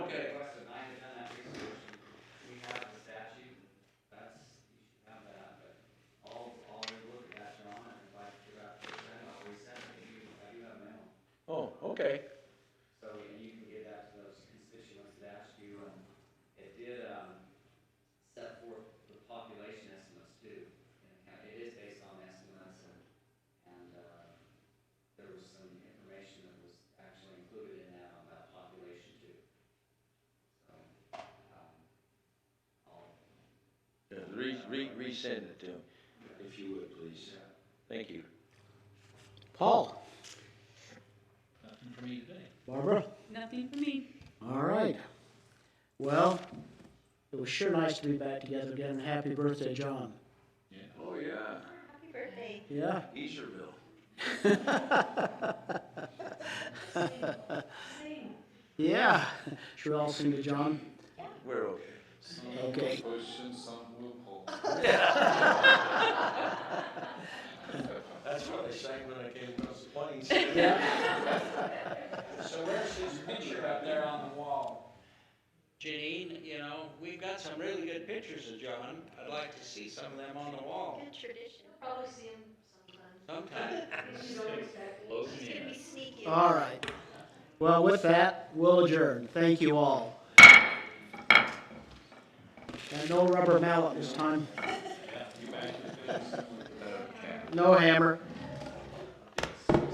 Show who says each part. Speaker 1: re, resend it to him, if you would, please. Thank you.
Speaker 2: Paul,
Speaker 3: Nothing for me today.
Speaker 2: Barbara?
Speaker 4: Nothing for me.
Speaker 2: All right. Well, it was sure nice to be back together again, and happy birthday, John.
Speaker 1: Oh, yeah,
Speaker 5: Happy birthday.
Speaker 2: Yeah?
Speaker 1: Easterville.
Speaker 5: Same.
Speaker 2: Yeah. Should we all sing to John?
Speaker 1: We're okay.
Speaker 2: Okay.
Speaker 1: That's what I sang when I came across the plains.
Speaker 2: Yeah.
Speaker 3: So where's his picture up there on the wall? Janine, you know, we've got some really good pictures of John. I'd like to see some of them on the wall
Speaker 5: Good tradition. Probably see him sometime.
Speaker 3: sometime.
Speaker 5: She's always back. She's gonna be sneaky.
Speaker 2: All right. Well, with that, we'll adjourn. Thank you all. And no rubber mallet this time. No hammer.